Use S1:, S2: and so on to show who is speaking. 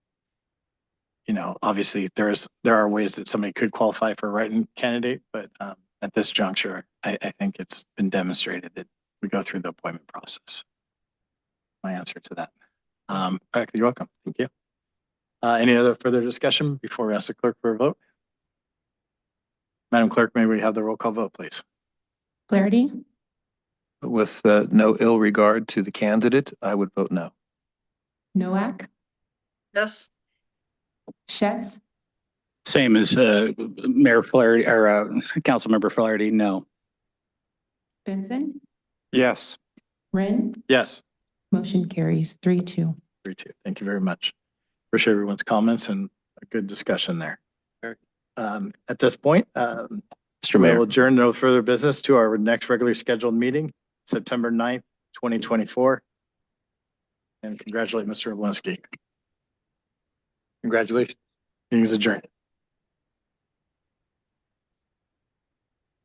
S1: you know, obviously there's, there are ways that somebody could qualify for a write-in candidate, but um, at this juncture, I, I think it's been demonstrated that we go through the appointment process. My answer to that. Um, all right, you're welcome. Thank you. Uh, any other further discussion before we ask the clerk for a vote? Madam Clerk, may we have the roll call vote, please?
S2: Flaherty,
S3: With uh, no ill regard to the candidate, I would vote no.
S2: Noack,
S4: Yes.
S2: Chess,
S5: Same as uh, Mayor Flaherty or uh, Councilmember Flaherty, no.
S2: Benson,
S3: Yes.
S2: Ren,
S1: Yes.
S2: motion carries three, two.
S1: Three, two. Thank you very much. Appreciate everyone's comments and a good discussion there. Um, at this point, um,
S3: Mr.
S1: we
S3: Mayor.
S1: will adjourn no further business to our next regularly scheduled meeting, September 9th, twenty twenty-four. And congratulate Mr. Oblinsky. Congratulations. Meeting's adjourned.